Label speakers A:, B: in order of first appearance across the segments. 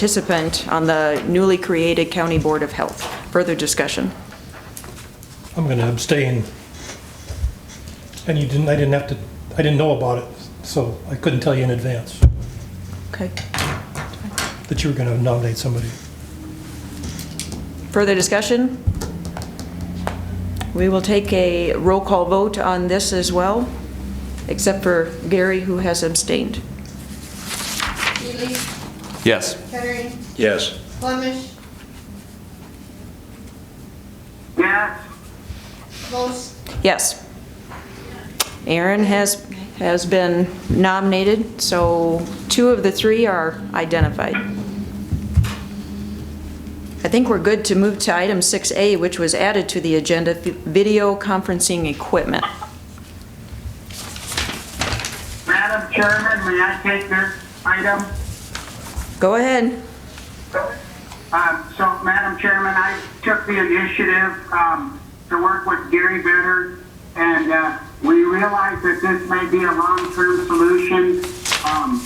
A: participant on the newly created County Board of Health. Further discussion?
B: I'm gonna abstain. And you didn't, I didn't have to, I didn't know about it, so I couldn't tell you in advance
A: Okay.
B: that you were gonna nominate somebody.
A: Further discussion? We will take a roll call vote on this as well, except for Gary, who has abstained.
C: Healy,
D: Yes.
C: Kettering,
E: Yes.
C: Flemish,
F: yes,
C: Most,
A: Yes. Aaron has, has been nominated, so two of the three are identified. I think we're good to move to item 6A, which was added to the agenda, vi- video conferencing equipment.
F: Madam Chairman, may I take this item?
A: Go ahead.
F: Uh, So, Madam Chairman, I took the initiative um, to work with Gary Bitter, and uh, we realize that this may be a long-term solution, um,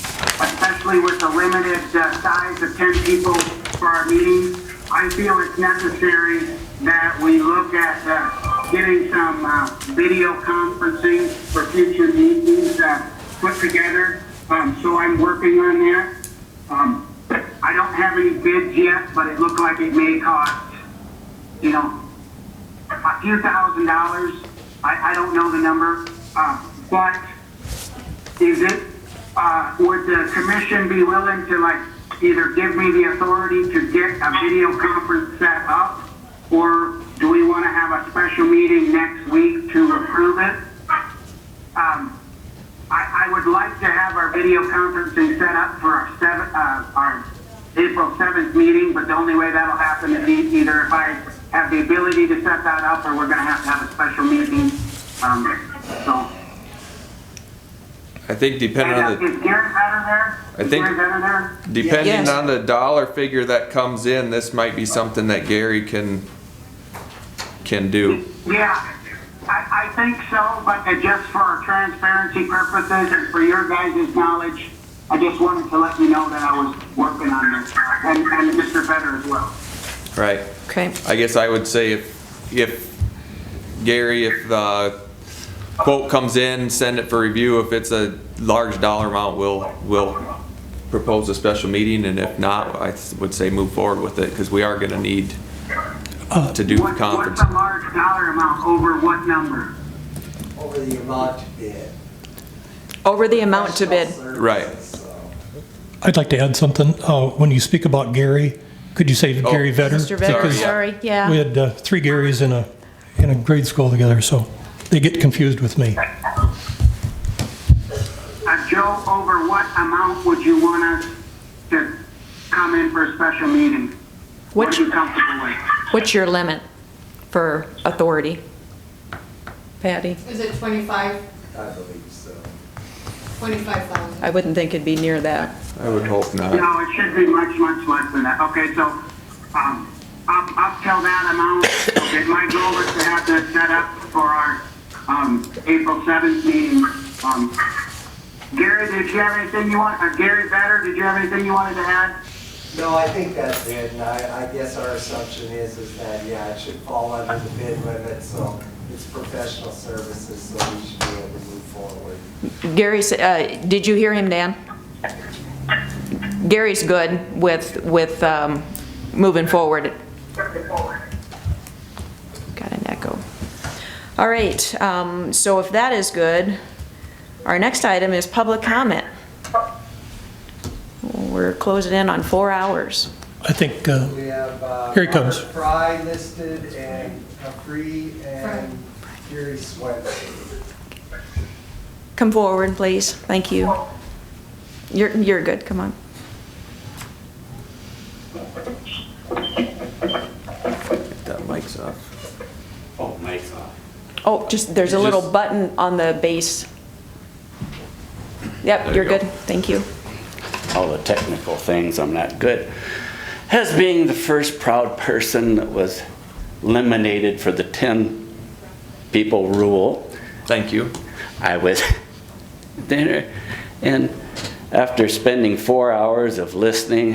F: especially with the limited uh, size of 10 people for our meeting. I feel it's necessary that we look at uh, getting some uh, video conferencing for future meetings uh, put together, Um, so I'm working on that. Um, I don't have any bids yet, but it looked like it may cost, you know, a few thousand dollars. I, I don't know the number, uh, but is it, uh, would the commission be willing to like either give me the authority to get a video conference set up? Or do we want to have a special meeting next week to approve it? Um, I, I would like to have our video conferencing set up for our seven, uh, our April seventh meeting, but the only way that'll happen is e- either if I have the ability to set that up, or we're gonna have to have a special meeting, um, so.
D: I think depending on the,
F: Is Garrett out of there?
D: I
F: Is
D: think-
F: Garrett out of there?
D: depending
A: Yes.
D: on the dollar figure that comes in, this might be something that Gary can, can do.
F: Yeah, I, I think so, but uh, just for transparency purposes and for your guys' knowledge, I just wanted to let you know that I was working on this, and, and Mr. Better as well.
D: Right.
A: Okay.
D: I guess I would say if, if, Gary, if the quote comes in, send it for review. If it's a large dollar amount, we'll, we'll propose a special meeting, and if not, I would say move forward with it, because we are gonna need to do the
F: What-
D: conference.
A: Uh,
F: What's a large dollar amount over what number?
G: over the amount to bid.
A: Over the amount to bid.
G: Professional
D: Right.
G: services, so.
B: I'd like to add something. Uh, when you speak about Gary, could you say Gary Vetter?
A: Mr. Vedder,
D: Sorry, yeah.
A: sorry, yeah.
B: We had uh, three Garys in a, in a grade school together, so they get confused with me.
F: Uh, Joe, over what amount would you want us to come in for a special meeting? What
A: Which-
F: are you comfortable with?
A: What's your limit for authority? Patty?
C: is it 25,
G: I believe so.
C: 25,000?
A: I wouldn't think it'd be near that.
D: I would hope not.
F: No, it should be much, much less than that. Okay, so, um, up, up till that amount, okay, my goal is to have this set up for our, um, April seventh meeting. Um, Gary, did you have anything you want, uh, Gary Vetter, did you have anything you wanted to add?
G: No, I think that's it, and I, I guess our assumption is, is that, yeah, it should fall under the bid limit, so it's professional services, so we should be able to move forward.
A: Gary, s- uh, did you hear him, Dan? Gary's good with, with um, moving forward. Got an echo. All right, um, so if that is good, our next item is public comment. We're closing in on four hours.
B: I think, uh,
G: We have, uh.
B: Here he comes.
G: Robert Fry listed, and Capri, and Gary Swenson.
A: Come forward, please. Thank you. You're, you're good, come on.
D: That mic's off.
H: Oh, mic's off.
A: Oh, just, there's a little
D: Just-
A: button on the base. Yep,
D: There
A: you're
D: you go.
A: good, thank you.
H: all the technical things, I'm not good. As being the first proud person that was eliminated for the 10 people rule,
D: Thank you.
H: I was there. And after spending four hours of listening,